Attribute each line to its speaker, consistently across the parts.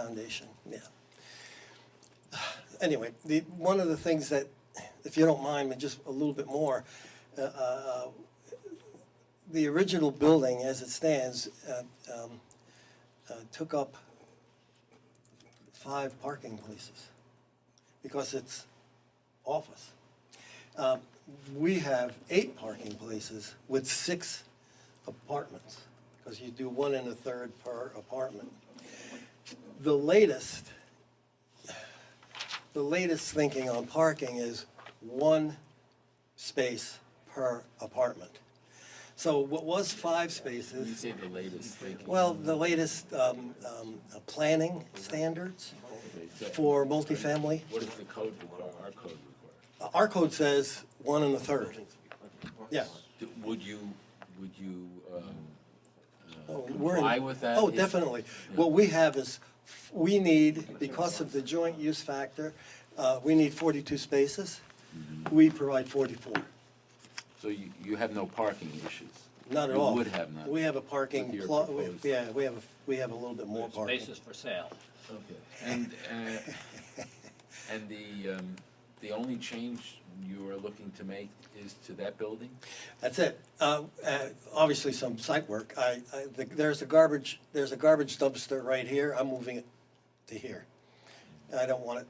Speaker 1: Foundation, yeah. Anyway, the, one of the things that, if you don't mind, but just a little bit more, uh, uh, the original building as it stands uh, um, uh, took up five parking places because it's office. Um, We have eight parking places with six apartments, because you do one and a third per apartment the latest, the latest thinking on parking is one space per apartment. So what was five
Speaker 2: You
Speaker 1: spaces,
Speaker 2: say the latest thinking.
Speaker 1: well, the latest, um, um, uh, planning standards for multifamily,
Speaker 2: What does the code require, our code require?
Speaker 1: uh, our code says one and a third. Yeah.
Speaker 2: Do- Would you, would you, um,
Speaker 1: Oh, we're in-
Speaker 2: comply with that
Speaker 1: Oh,
Speaker 2: is-
Speaker 1: definitely. What we have is, we need, because of the joint use factor, uh, we need forty-two spaces.
Speaker 2: Mm-hmm.
Speaker 1: We provide forty-four.
Speaker 2: so you, you have no parking issues?
Speaker 1: Not at
Speaker 2: You
Speaker 1: all.
Speaker 2: would have none?
Speaker 1: We have a parking,
Speaker 2: With your
Speaker 1: plo- we-
Speaker 2: proposed-
Speaker 1: yeah, we have, a- we have a little bit more parking.
Speaker 3: Spaces for sale.
Speaker 2: Okay. And, uh, and the, um, the only change you are looking to make is to that building?
Speaker 1: That's it. Uh, uh, Obviously, some site work. I, I- the- there's a garbage, there's a garbage dumpster right here. I'm moving it to here. I don't want it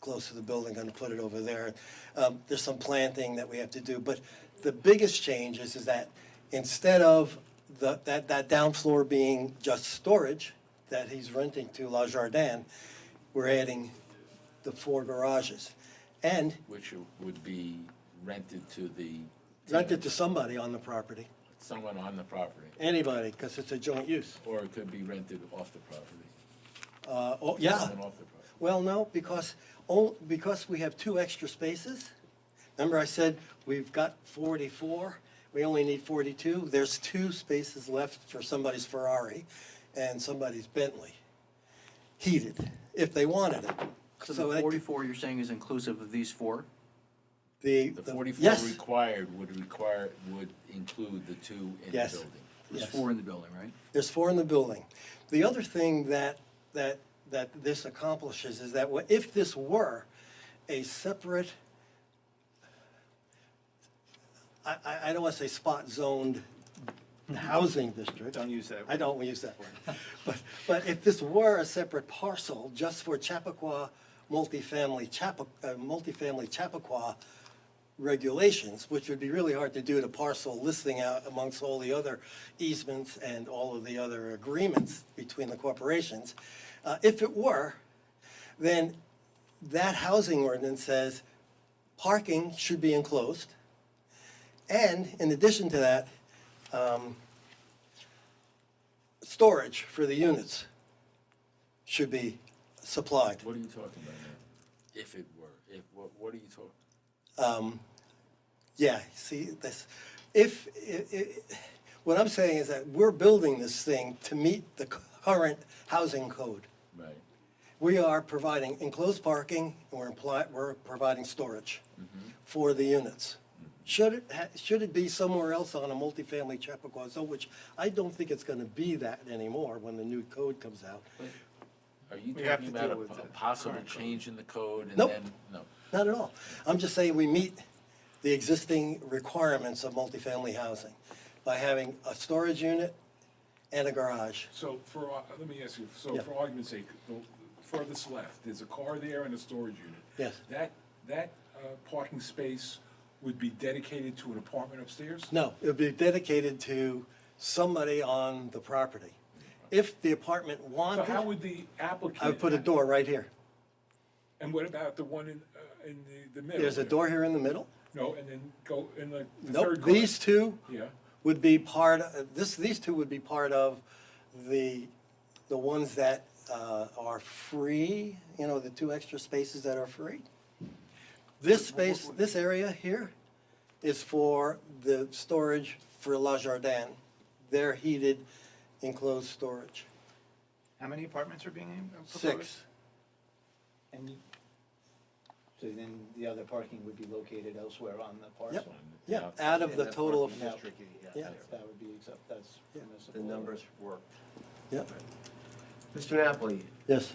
Speaker 1: close to the building, gonna put it over there. Um, There's some planting that we have to do, but the biggest change is, is that instead of the, that, that down floor being just storage that he's renting to La Jardin, we're adding the four garages. And
Speaker 2: Which would be rented to the.
Speaker 1: rented to
Speaker 2: tenant,
Speaker 1: somebody on the property,
Speaker 2: Someone on the property,
Speaker 1: anybody, because it's a joint use.
Speaker 2: or it could be rented off the property.
Speaker 1: Uh, oh, yeah.
Speaker 2: Someone off the property.
Speaker 1: Well, no, because, on- because we have two extra spaces. Remember I said we've got forty-four, we only need forty-two. There's two spaces left for somebody's Ferrari and somebody's Bentley, heated, if they wanted it.
Speaker 4: So
Speaker 1: that-
Speaker 4: the forty-four you're saying is inclusive of these four?
Speaker 1: The,
Speaker 2: The
Speaker 1: the-
Speaker 2: forty-four
Speaker 1: yes,
Speaker 2: required would require, would include the two in the
Speaker 1: Yes.
Speaker 2: building.
Speaker 4: There's
Speaker 1: Yes.
Speaker 4: four in the building, right?
Speaker 1: there's four in the building. The other thing that, that, that this accomplishes is that wha- if this were a separate I, I, I don't want to say spot zoned housing district.
Speaker 5: Don't use that
Speaker 1: I don't use that word. But, but if this were a separate parcel just for Chappaqua multifamily, Chappa, uh, multifamily Chappaqua regulations, which would be really hard to do to parcel listing out amongst all the other easements and all of the other agreements between the corporations. Uh, if it were, then that housing ordinance says parking should be enclosed. And in addition to that, um, storage for the units should be supplied.
Speaker 2: What are you talking about now? If it were, if, what, what are you talking?
Speaker 1: Yeah, see, this, if, i- i- what I'm saying is that we're building this thing to meet the current housing code.
Speaker 2: Right.
Speaker 1: We are providing enclosed parking, and we're imply, we're providing storage for the units. Should it, ha- should it be somewhere else on a multifamily Chappaqua zone, which I don't think it's gonna be that anymore when the new code comes out.
Speaker 2: Are you
Speaker 5: We have
Speaker 2: talking
Speaker 5: to
Speaker 2: about
Speaker 5: deal with
Speaker 2: a- a
Speaker 5: the
Speaker 2: possible
Speaker 5: current code.
Speaker 2: change in the code and
Speaker 1: Nope.
Speaker 2: then, no?
Speaker 1: Not at all. I'm just saying we meet the existing requirements of multifamily housing by having a storage unit and a garage.
Speaker 6: So for, ar- let me ask you, so
Speaker 1: Yeah.
Speaker 6: for argument's sake, the furthest left, there's a car there and a storage unit.
Speaker 1: Yes.
Speaker 6: That, that uh, parking space would be dedicated to an apartment upstairs?
Speaker 1: No, it would be dedicated to somebody on the property. If the apartment
Speaker 6: So
Speaker 1: wanted,
Speaker 6: how would the applicant?
Speaker 1: I would put a door right here.
Speaker 6: And what about the one in, uh, in the, the middle?
Speaker 1: There's a
Speaker 6: there?
Speaker 1: door here in the middle.
Speaker 6: No, and then go in the the third
Speaker 1: Nope,
Speaker 6: car?
Speaker 1: these two
Speaker 6: Yeah,
Speaker 1: would be part, of- this, these two would be part of the, the ones that uh, are free, you know, the two extra spaces that are free. This space, this area here is for the storage for La Jardin, their heated enclosed storage.
Speaker 5: How many apartments are being uh, proposed?
Speaker 1: Six,
Speaker 7: And you- so then the other parking would be located elsewhere on the parcel?
Speaker 1: yeah, out of the
Speaker 7: And that
Speaker 1: total of,
Speaker 7: parking is tricky,
Speaker 1: Yeah.
Speaker 7: that's- That would be, accept- that's permissible.
Speaker 8: The numbers work.
Speaker 1: yeah,
Speaker 8: Mr. Napoli,
Speaker 1: yes.